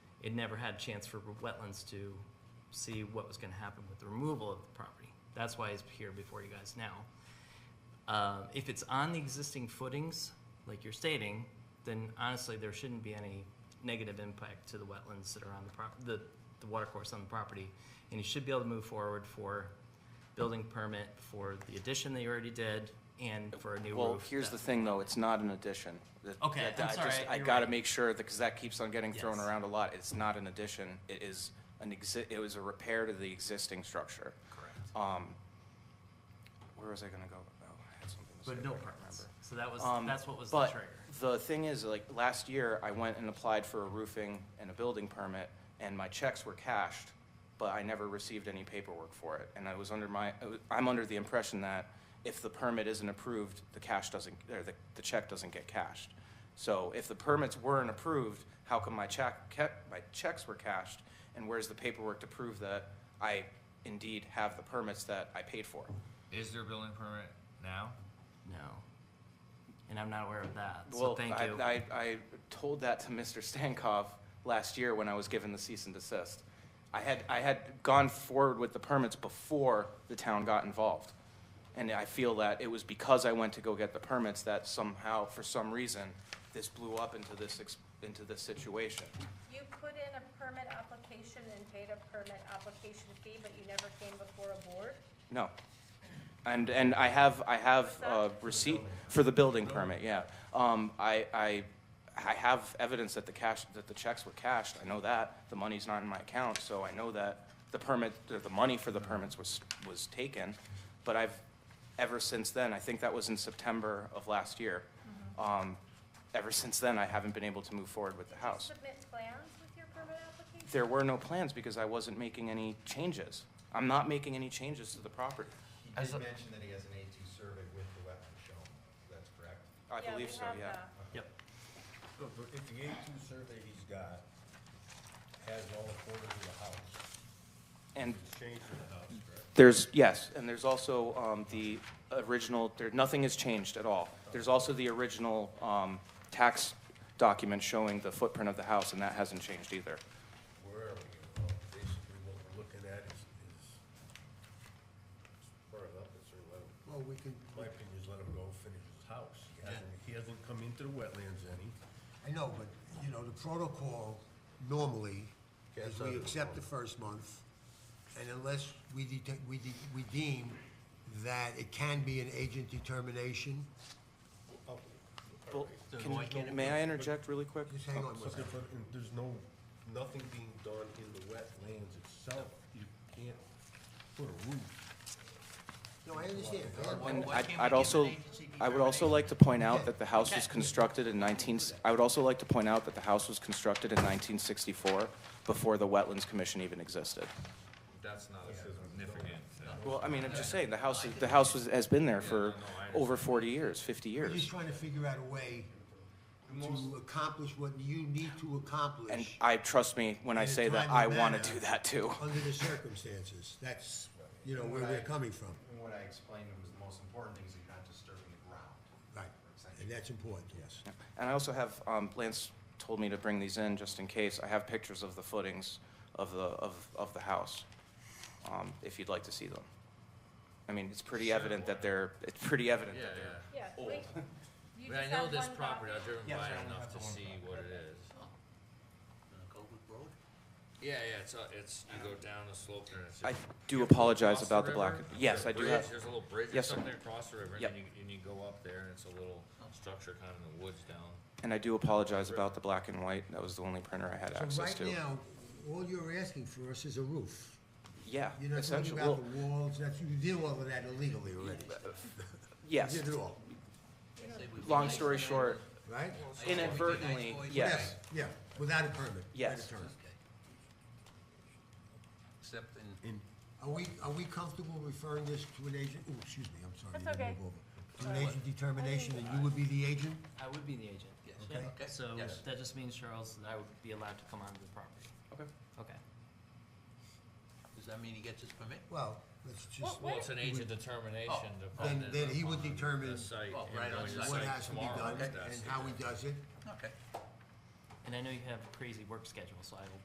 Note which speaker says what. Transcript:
Speaker 1: it never had a chance for wetlands to see what was gonna happen with the removal of the property. That's why it's here before you guys now. Uh, if it's on the existing footings, like you're stating, then honestly, there shouldn't be any negative impact to the wetlands that are on the prop, the, the water course on the property. And you should be able to move forward for building permit for the addition that you already did and for a new roof.
Speaker 2: Well, here's the
Speaker 1: that-
Speaker 2: thing, though, it's not an addition. That-
Speaker 1: Okay,
Speaker 2: that-
Speaker 1: I'm
Speaker 2: I
Speaker 1: sorry,
Speaker 2: just- I
Speaker 1: you're
Speaker 2: gotta
Speaker 1: right.
Speaker 2: make sure, because that keeps on getting thrown
Speaker 1: Yes.
Speaker 2: around a lot. It's not an addition, it is an exi, it was a repair to the existing structure.
Speaker 1: Correct.
Speaker 2: Um, where was I gonna go? Oh, I had something to say.
Speaker 1: But no
Speaker 2: I can't
Speaker 1: permits.
Speaker 2: remember.
Speaker 1: So that was,
Speaker 2: Um,
Speaker 1: that's what was the
Speaker 2: but
Speaker 1: trigger.
Speaker 2: The thing is, like, last year, I went and applied for a roofing and a building permit, and my checks were cashed, but I never received any paperwork for it. And I was under my, I was- I'm under the impression that if the permit isn't approved, the cash doesn't, or the, the check doesn't get cashed. So if the permits weren't approved, how come my check, kept, my checks were cashed? And where's the paperwork to prove that I indeed have the permits that I paid for?
Speaker 3: Is there a building permit now?
Speaker 1: No. And I'm not aware of that, so
Speaker 2: Well,
Speaker 1: thank
Speaker 2: I,
Speaker 1: you.
Speaker 2: I, I told that to Mr. Stankov last year when I was given the cease and desist. I had, I had gone forward with the permits before the town got involved. And I feel that it was because I went to go get the permits that somehow, for some reason, this blew up into this, ex- into this situation.
Speaker 4: You put in a permit application and paid a permit application fee, but you never came before a board?
Speaker 2: No. And, and I have, I have uh,
Speaker 4: What's
Speaker 2: receipt for the building permit, yeah. Um, I, I, I have evidence that the cash, that the checks were cashed, I know that, the money's not in my account, so I know that the permit, the the money for the permits was, was taken, but I've, ever since then, I think that was in September of last year. Um, Ever since then, I haven't been able to move forward with the house.
Speaker 4: Did you submit plans with your permit application?
Speaker 2: There were no plans because I wasn't making any changes. I'm not making any changes to the property,
Speaker 5: He
Speaker 3: As
Speaker 5: did
Speaker 3: a-
Speaker 5: mention that he has an A2 survey with the wetland shown, that's correct?
Speaker 2: I believe so,
Speaker 4: we
Speaker 2: yeah.
Speaker 4: have uh, that.
Speaker 1: Yep,
Speaker 5: So but if the A2 survey he's got has all the quarters of the house,
Speaker 2: And
Speaker 5: it's changed to the house, correct?
Speaker 2: There's, yes, and there's also um, the original, there, nothing has changed at all. There's also the original um, tax document showing the footprint of the house, and that hasn't changed either.
Speaker 5: Where are we? Well, Basically, what we're looking at is, is far enough, it's sort of, let him-
Speaker 6: Well, we can,
Speaker 5: my opinion is let him go finish his house. He hasn't, he hasn't come into the wetlands any.
Speaker 6: I know, but, you know, the protocol normally
Speaker 5: Yeah, it's
Speaker 6: is
Speaker 5: not
Speaker 6: we
Speaker 5: a
Speaker 6: accept the first month, and unless we detect, we de- we deem that it can be an agent determination,
Speaker 5: Oh,
Speaker 2: Well,
Speaker 1: So
Speaker 2: can-
Speaker 1: why can't it
Speaker 2: May I interject really quick?
Speaker 6: just hang on one
Speaker 5: But
Speaker 6: second.
Speaker 5: if- if There's no, nothing being done in the wetlands itself. You can't put a roof
Speaker 6: No, I understand. I have-
Speaker 2: And
Speaker 3: why
Speaker 2: I'd,
Speaker 3: can't we
Speaker 2: I'd
Speaker 3: give
Speaker 2: also,
Speaker 3: an agency
Speaker 2: I would also like to point out that the house was constructed in nineteen, I would also like to point out that the house was constructed in nineteen sixty-four, before the Wetlands Commission even existed.
Speaker 3: That's not a significant. uh,
Speaker 2: Well, I mean, I'm just saying, the house, is- the house was- has been there for over forty years, fifty
Speaker 6: We're
Speaker 2: years.
Speaker 6: just trying to figure out a way to accomplish what you need to
Speaker 2: And
Speaker 6: accomplish
Speaker 2: I, trust me, when I
Speaker 6: In a
Speaker 2: say that,
Speaker 6: timely
Speaker 2: I want to
Speaker 6: manner.
Speaker 2: do that too.
Speaker 6: under the circumstances. That's, you know, where we're coming from.
Speaker 7: And what I explained was the most important thing is you're not disturbing the ground.
Speaker 6: Right, and that's important, yes.
Speaker 2: And I also have, um, Lance told me to bring these in just in case. I have pictures of the footings of the, of, of the house, um, if you'd like to see them. I mean, it's pretty evident that they're, it's pretty evident
Speaker 3: Yeah,
Speaker 2: that they're.
Speaker 3: yeah.
Speaker 4: Yeah, wait. You
Speaker 3: But I
Speaker 4: just
Speaker 3: know
Speaker 4: have
Speaker 3: this
Speaker 4: one
Speaker 3: property, I've
Speaker 4: copy.
Speaker 3: driven by it enough to see what it is.
Speaker 2: Oh.
Speaker 3: Yeah, yeah, it's, uh, it's, you go down the slope there. it's
Speaker 2: I
Speaker 3: just-
Speaker 2: do
Speaker 3: you have to
Speaker 2: apologize
Speaker 3: cross the
Speaker 2: about the black,
Speaker 3: river,
Speaker 2: yes,
Speaker 3: the
Speaker 2: I do
Speaker 3: bridge,
Speaker 2: have,
Speaker 3: There's a little bridge or
Speaker 2: Yes, sir.
Speaker 3: something across the river, and
Speaker 2: Yep.
Speaker 3: then you, and you go up there, and it's a little
Speaker 8: Oh.
Speaker 3: structure kind of in the woods down.
Speaker 2: and I do apologize about the black and white. That was the only printer I had
Speaker 6: So
Speaker 2: access
Speaker 6: right
Speaker 2: to.
Speaker 6: now, all you're asking for us is a roof.
Speaker 2: Yeah,
Speaker 6: You're not talking
Speaker 2: essentially,
Speaker 6: about
Speaker 2: well,
Speaker 6: the walls, that's, you did all of that illegally already.
Speaker 2: yes.
Speaker 6: You did it all,
Speaker 2: Long story short,
Speaker 6: right?
Speaker 2: inadvertently, yes.
Speaker 6: Yeah, without a permit.
Speaker 2: Yes.
Speaker 6: without a permit.
Speaker 8: Except in,
Speaker 6: Are we, are we comfortable referring this to an agent? Oh, excuse me, I'm sorry.
Speaker 4: That's
Speaker 6: you didn't
Speaker 4: okay.
Speaker 6: move over. To an agent determination, and you would be the agent?
Speaker 1: I would be the agent.
Speaker 6: Okay.
Speaker 8: okay,
Speaker 1: So
Speaker 8: yes.
Speaker 1: that just means, Charles, that I would be allowed to come onto the property.
Speaker 2: Okay.
Speaker 1: Okay.
Speaker 8: Does that mean he gets his permit?
Speaker 6: Well, let's just,
Speaker 4: Well,
Speaker 3: Well, it's an age of determination
Speaker 6: then,
Speaker 3: dependent
Speaker 6: then he would
Speaker 3: upon
Speaker 6: determine
Speaker 3: The site.
Speaker 8: Oh,
Speaker 3: you
Speaker 8: right
Speaker 3: know,
Speaker 8: on
Speaker 3: your
Speaker 8: site.
Speaker 6: what
Speaker 3: site
Speaker 6: has to be
Speaker 3: tomorrow,
Speaker 6: done
Speaker 3: that's-
Speaker 6: and how he does it.
Speaker 8: Okay.
Speaker 1: And I know you have a crazy work schedule, so I will